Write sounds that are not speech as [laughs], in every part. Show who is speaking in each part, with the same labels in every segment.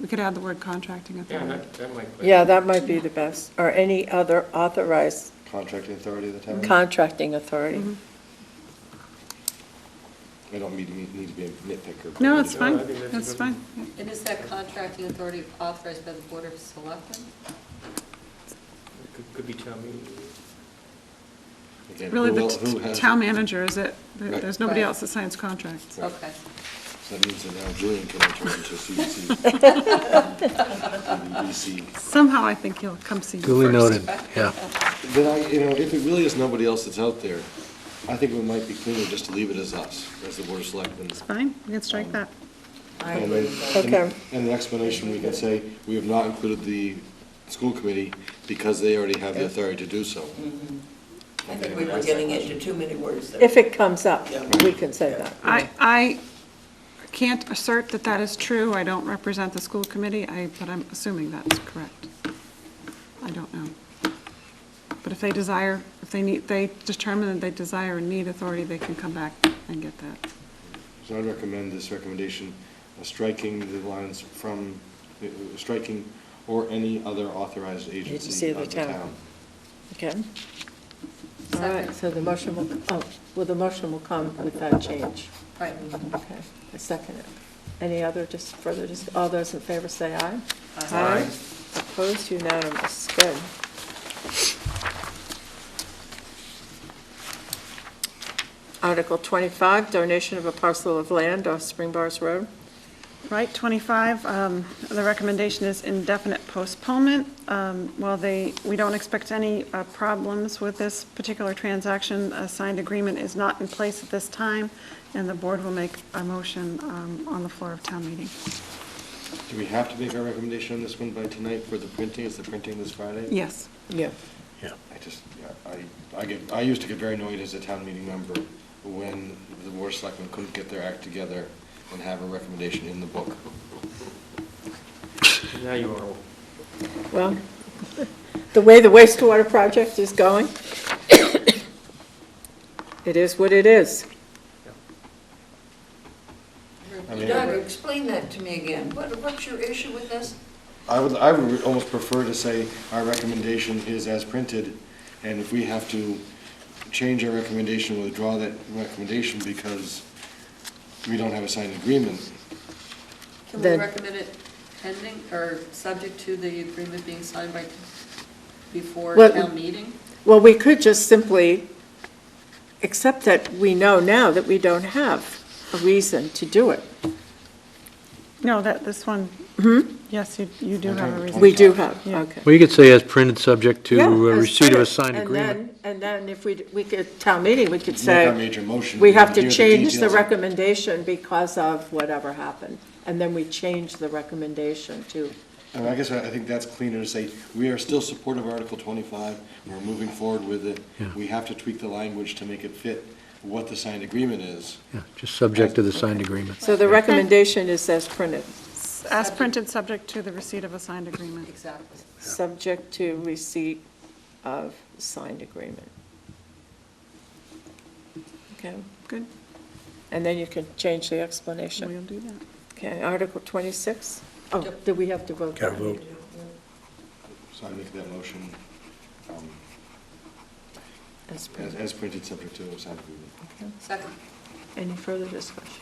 Speaker 1: We could add the word contracting
Speaker 2: Yeah,
Speaker 1: authority.
Speaker 2: that, that might.
Speaker 3: Yeah, that might be the best, or any other authorized
Speaker 4: Contracting authority of the town?
Speaker 3: contracting authority.
Speaker 1: Mm-hmm.
Speaker 4: I don't mean, to- need to be a nitpicker.
Speaker 1: No, it's
Speaker 2: No,
Speaker 1: fine,
Speaker 2: I think that's a
Speaker 1: that's
Speaker 2: good
Speaker 1: fine.
Speaker 5: And is that contracting authority authorized by the Board of Selectmen?
Speaker 2: Could- Could be town meeting.
Speaker 4: Again,
Speaker 1: Really,
Speaker 4: who
Speaker 1: the
Speaker 4: el-
Speaker 1: t-
Speaker 4: who has
Speaker 1: town
Speaker 4: it?
Speaker 1: manager is it, There-
Speaker 4: Right.
Speaker 1: there's nobody
Speaker 5: Right.
Speaker 1: else that signs contracts.
Speaker 4: Right.
Speaker 5: Okay.
Speaker 4: So that means that now Julian can enter
Speaker 1: [laughs]
Speaker 4: into [laughs] CDC. CDC.
Speaker 1: Somehow I think he'll come see you
Speaker 6: Duly
Speaker 1: first.
Speaker 6: noted, yeah.
Speaker 4: Then I, you know, if it really is nobody else that's out there, I think it might be cleaner just to leave it as us, as the board of selectmen.
Speaker 1: It's fine, we can strike that.
Speaker 4: And then-
Speaker 3: Okay.
Speaker 4: And the explanation, we can say, we have not included the school committee because they already have the authority to do so.
Speaker 7: I think we were getting into too many words there.
Speaker 3: If it comes up,
Speaker 7: Yeah.
Speaker 3: we can say that.
Speaker 1: I, I can't assert that that is true, I don't represent the school committee, I, but I'm assuming that's correct. I don't know. But if they desire, if they need, they determine that they desire and need authority, they can come back and get that.
Speaker 4: So I'd recommend this recommendation, uh, striking the lines from, uh, uh, striking or any other authorized agency of the town.
Speaker 3: Okay. All right, so the motion will, oh, well, the motion will come with that change.
Speaker 5: Right.
Speaker 3: Okay, I second it. Any other, just further, just, all those in favor say aye.
Speaker 5: Aye.
Speaker 3: Opposed, unanimous, good. Article 25, donation of a parcel of land off Spring Bars Road.
Speaker 1: Right, 25, um, the recommendation is indefinite postponement. Um, While they, we don't expect any uh, problems with this particular transaction, a signed agreement is not in place at this time, and the board will make a motion um, on the floor of town meeting.
Speaker 4: Do we have to make our recommendation on this one by tonight for the printing? Is the printing this Friday?
Speaker 1: Yes.
Speaker 3: Yeah.
Speaker 4: I just, yeah, I, I get, I used to get very annoyed as a town meeting member when the board of selectmen couldn't get their act together and have a recommendation in the book.
Speaker 2: Now you are,
Speaker 3: Well, the way the wastewater project is going, it is what it is.
Speaker 4: mean-
Speaker 7: Doug, explain that to me again. What, what's your issue with this?
Speaker 4: I would, I would almost prefer to say our recommendation is as printed, and if we have to change our recommendation, withdraw that recommendation because we don't have a signed agreement.
Speaker 5: Can we
Speaker 3: Then-
Speaker 5: recommend it pending, or subject to the agreement being signed by, before
Speaker 3: Well-
Speaker 5: town meeting?
Speaker 3: Well, we could just simply, accept that we know now that we don't have a reason to do it.
Speaker 1: No, that, this one, yes, you you do have a reason.
Speaker 3: We do have,
Speaker 1: Yeah.
Speaker 3: okay.
Speaker 6: Well, you could say as printed, subject to
Speaker 3: Yeah,
Speaker 6: uh,
Speaker 3: as
Speaker 6: receipt of a
Speaker 3: printed.
Speaker 6: signed agreement.
Speaker 3: And then, and then if we, we could, town meeting, we could
Speaker 4: Make our
Speaker 3: say,
Speaker 4: major motion.
Speaker 3: we have to
Speaker 4: hear the
Speaker 3: change the
Speaker 4: details.
Speaker 3: recommendation because of whatever happened. And then we change the recommendation to,
Speaker 4: I mean, I guess I I think that's cleaner to say, we are still supportive of Article 25, we're moving forward with it.
Speaker 6: Yeah.
Speaker 4: We have to tweak the language to make it fit what the signed agreement is.
Speaker 6: Yeah, just subject to the signed agreement.
Speaker 3: so the recommendation is as printed,
Speaker 1: As printed, subject to the receipt of a signed agreement.
Speaker 5: Exactly.
Speaker 3: subject to receipt of signed agreement. Okay,
Speaker 1: Good,
Speaker 3: and then you can change the explanation.
Speaker 1: we'll do that.
Speaker 3: Okay, Article 26? Oh, do we have to vote?
Speaker 6: Gotta vote.
Speaker 4: So I make that motion um,
Speaker 3: As
Speaker 4: as
Speaker 3: printed.
Speaker 4: as printed, subject to a signed agreement.
Speaker 3: Okay.
Speaker 5: Second.
Speaker 3: Any further discussion?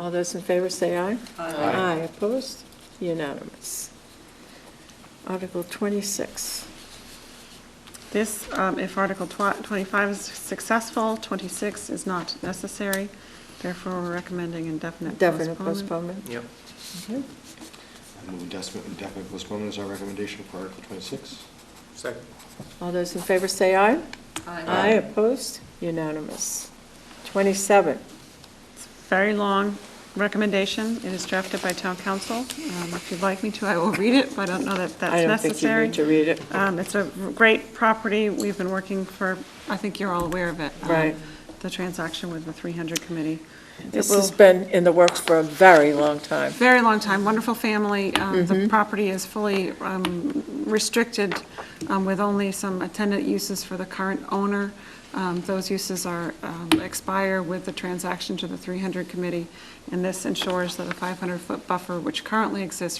Speaker 3: All those in favor say aye.
Speaker 5: Aye.
Speaker 3: opposed? Unanimous. Article 26.
Speaker 1: This, um, if Article tw- 25 is successful, 26 is not necessary, therefore we're recommending indefinite
Speaker 3: Definite
Speaker 1: postponement.
Speaker 3: postponement.
Speaker 2: yep.
Speaker 3: Okay.
Speaker 4: I move indefinite indefinite postponement is our recommendation for Article 26.
Speaker 2: Second.
Speaker 3: All those in favor say aye. opposed? Unanimous. 27.
Speaker 1: It's a Very long recommendation, it is drafted by town council. Um, If you'd like me to, I will read it, but I don't know that
Speaker 3: I
Speaker 1: that's
Speaker 3: don't think you
Speaker 1: necessary.
Speaker 3: need to read it.
Speaker 1: Um, It's a great property, we've been working for, I think you're all aware of it. um,
Speaker 3: Right.
Speaker 1: The transaction with the 300 committee. It
Speaker 3: This
Speaker 1: will-
Speaker 3: has been in the works for a very long time.
Speaker 1: very long time, wonderful family. Um, The property is fully um, restricted um, with only some attendant uses for the current owner. Um, Those uses are, um, expire with the transaction to the 300 committee, and this ensures that a 500-foot buffer, which currently exists